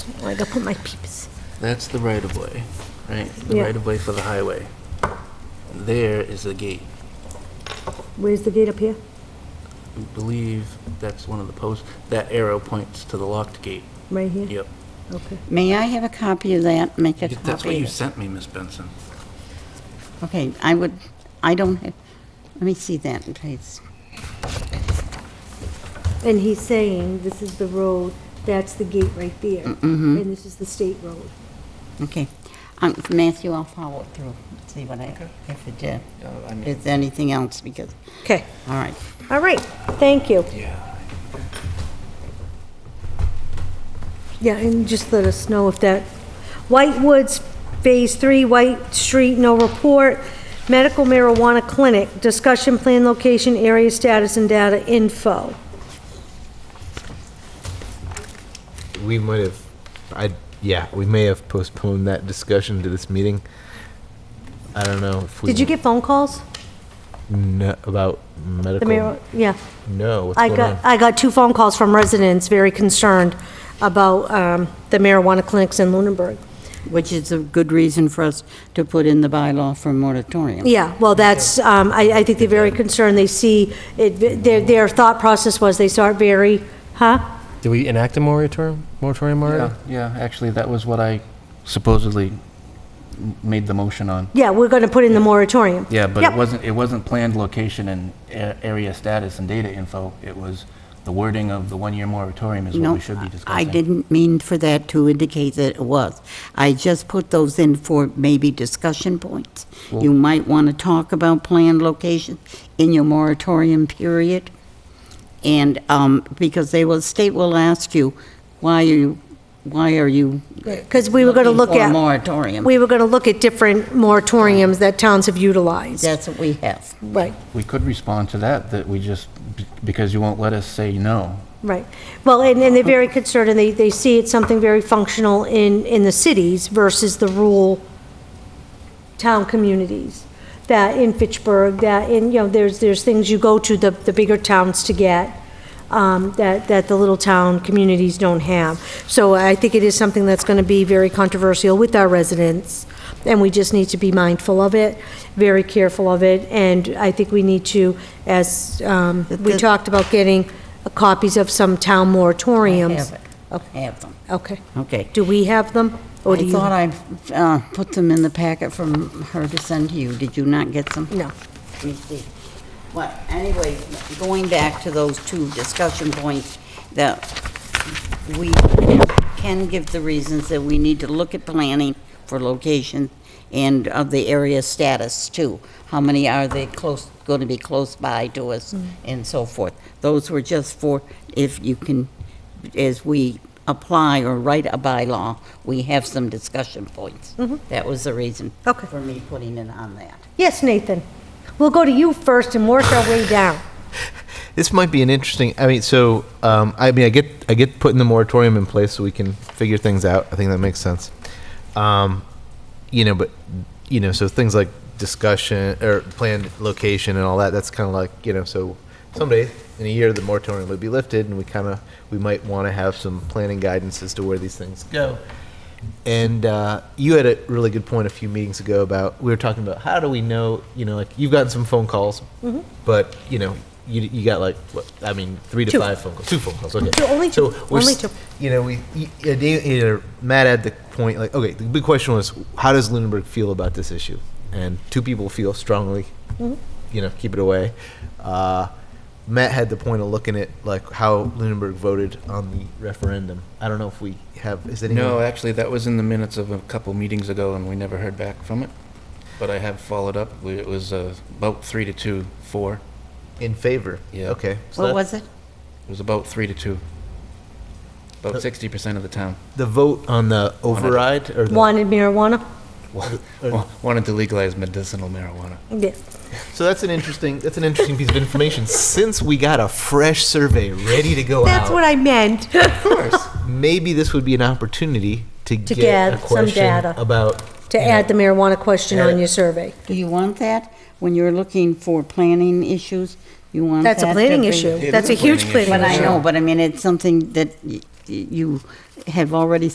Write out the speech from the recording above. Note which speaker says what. Speaker 1: Oh, I gotta put my peeps.
Speaker 2: That's the right of way, right? The
Speaker 1: Yeah.
Speaker 2: right of way for the highway. There is the gate.
Speaker 1: Where's the gate up here?
Speaker 2: I believe that's one of the posts. That arrow points to the locked gate.
Speaker 1: Right here?
Speaker 2: Yep.
Speaker 1: Okay.
Speaker 3: May I have a copy of that? Make a copy.
Speaker 2: That's what
Speaker 3: of
Speaker 2: you
Speaker 3: it.
Speaker 2: sent me, Miss Benson.
Speaker 3: Okay, I would, I don't, have- let me see that, please.
Speaker 1: And he's saying, this is the road, that's the gate right there. And this is the state road.
Speaker 3: Okay. Um, Matthew, I'll follow it through, see what I, if it did. If anything else, because,
Speaker 1: Okay.
Speaker 3: all right.
Speaker 1: All right, thank you.
Speaker 2: Yeah.
Speaker 1: Yeah, and just let us know if that, White Woods, Phase 3, White Street, no report, medical marijuana clinic, discussion plan, location, area status, and data info.
Speaker 4: we might have i yeah we may have postponed that discussion to this meeting i don't know if we
Speaker 1: Did you get phone calls?
Speaker 4: kn- about
Speaker 1: The
Speaker 4: medical
Speaker 1: mayor, yeah.
Speaker 4: no what's
Speaker 1: I
Speaker 4: going
Speaker 1: got,
Speaker 4: on
Speaker 1: I got two phone calls from residents very concerned about um, the marijuana clinics in Lunenburg.
Speaker 3: Which is a good reason for us to put in the bylaw for moratorium.
Speaker 1: Yeah, well, that's, um, I, I think they're very concerned, they see, it. their, their thought process was they saw it very, huh?
Speaker 5: Did we enact a moratorium, moratorium already?
Speaker 2: Yeah, yeah, actually, that was what I supposedly m- made the motion on.
Speaker 1: Yeah, we're going to put in the moratorium.
Speaker 2: Yeah, but
Speaker 1: Yep.
Speaker 2: it wasn't, it wasn't planned location and a- area status and data info. It was the wording of the one-year moratorium is what
Speaker 3: No,
Speaker 2: we should be discussing.
Speaker 3: I didn't mean for that to indicate that it was. I just put those in for maybe discussion points. You might want to talk about planned location in your moratorium period. And, um, because they will, state will ask you, why are you, why are you?
Speaker 1: Because we were going to look
Speaker 3: looking for a
Speaker 1: at,
Speaker 3: moratorium.
Speaker 1: we were going to look at different moratoriums that towns have utilized.
Speaker 3: That's what we have.
Speaker 1: Right,
Speaker 2: We could respond to that, that we just, be- because you won't let us say no.
Speaker 1: right. Well, and, and they're very concerned, and they, they see it's something very functional in, in the cities versus the rural town communities. That in Fitchburg, that in, you know, there's, there's things you go to the, the bigger towns to get, um, that, that the little town communities don't have. So I think it is something that's gonna be very controversial with our residents, and we just need to be mindful of it, very careful of it, and I think we need to, as, um, we
Speaker 3: The-
Speaker 1: talked about getting copies of some town moratoriums.
Speaker 3: Have it. Have them.
Speaker 1: Okay.
Speaker 3: Okay.
Speaker 1: Do we have them, or do
Speaker 3: I
Speaker 1: you?
Speaker 3: thought I uh, put them in the packet from her to send to you. Did you not get some?
Speaker 1: No.
Speaker 3: Let me see. Well, anyway, going back to those two discussion points, that we can give the reasons that we need to look at planning for location and of the area status too. How many are they close, going to be close by to us
Speaker 1: Mm.
Speaker 3: and so forth. Those were just for, if you can, as we apply or write a bylaw, we have some discussion points. That was the reason
Speaker 1: Mm-hmm. Okay.
Speaker 3: for me putting it on that.
Speaker 1: Yes, Nathan. We'll go to you first and work our way down.
Speaker 4: this might be an interesting i mean so um, i mean i get i get putting the moratorium in place so we can figure things out i think that makes sense um, you know but you know so things like discussion or planned location and all that that's kind of like you know so someday in a year the moratorium would be lifted and we kind of we might want to have some planning guidance as to where these things go and uh, you had a really good point a few meetings ago about we were talking about how do we know you know like you've gotten some phone calls
Speaker 1: Mm-hmm.
Speaker 4: but you know you, you got like what i mean three to
Speaker 1: Two.
Speaker 4: five phone calls two phone calls okay
Speaker 1: Two, only two,
Speaker 4: so we're
Speaker 1: only
Speaker 4: s-
Speaker 1: two.
Speaker 4: you know we you, you know, you know, matt had the point like okay the big question was how does Lindbergh feel about this issue and two people feel strongly you know keep it away uh, matt had the point of looking at like how Lindbergh voted on the referendum i don't know if we have is anyone
Speaker 2: No, actually, that was in the minutes of a couple meetings ago, and we never heard back from it. But I have followed up. We- It was uh, about three to two, four.
Speaker 4: In favor?
Speaker 2: Yeah.
Speaker 4: Okay. so
Speaker 3: What
Speaker 4: that-
Speaker 3: was it?
Speaker 2: It was about three to two. About 60% of the town
Speaker 4: The vote on the override or the?
Speaker 1: Wanted marijuana?
Speaker 2: wa-
Speaker 4: uh,
Speaker 2: wa- wanted to legalize medicinal marijuana.
Speaker 1: Yes.
Speaker 4: So that's an interesting, that's an interesting piece of information. Since we got a fresh survey ready to go
Speaker 1: That's what
Speaker 4: out,
Speaker 1: I meant.
Speaker 4: maybe this would be an opportunity to
Speaker 1: To
Speaker 4: get a
Speaker 1: get some data.
Speaker 4: question about.
Speaker 1: To add the marijuana question on your survey.
Speaker 3: Do you want that? When you're looking for planning issues, you want that?
Speaker 1: That's a
Speaker 3: to
Speaker 1: planning
Speaker 3: be-
Speaker 1: issue.
Speaker 2: It
Speaker 1: That's a
Speaker 2: is a
Speaker 1: huge
Speaker 2: planning issue.
Speaker 1: planning
Speaker 3: But I
Speaker 1: issue.
Speaker 3: know, but I mean, it's something that y- y- you have already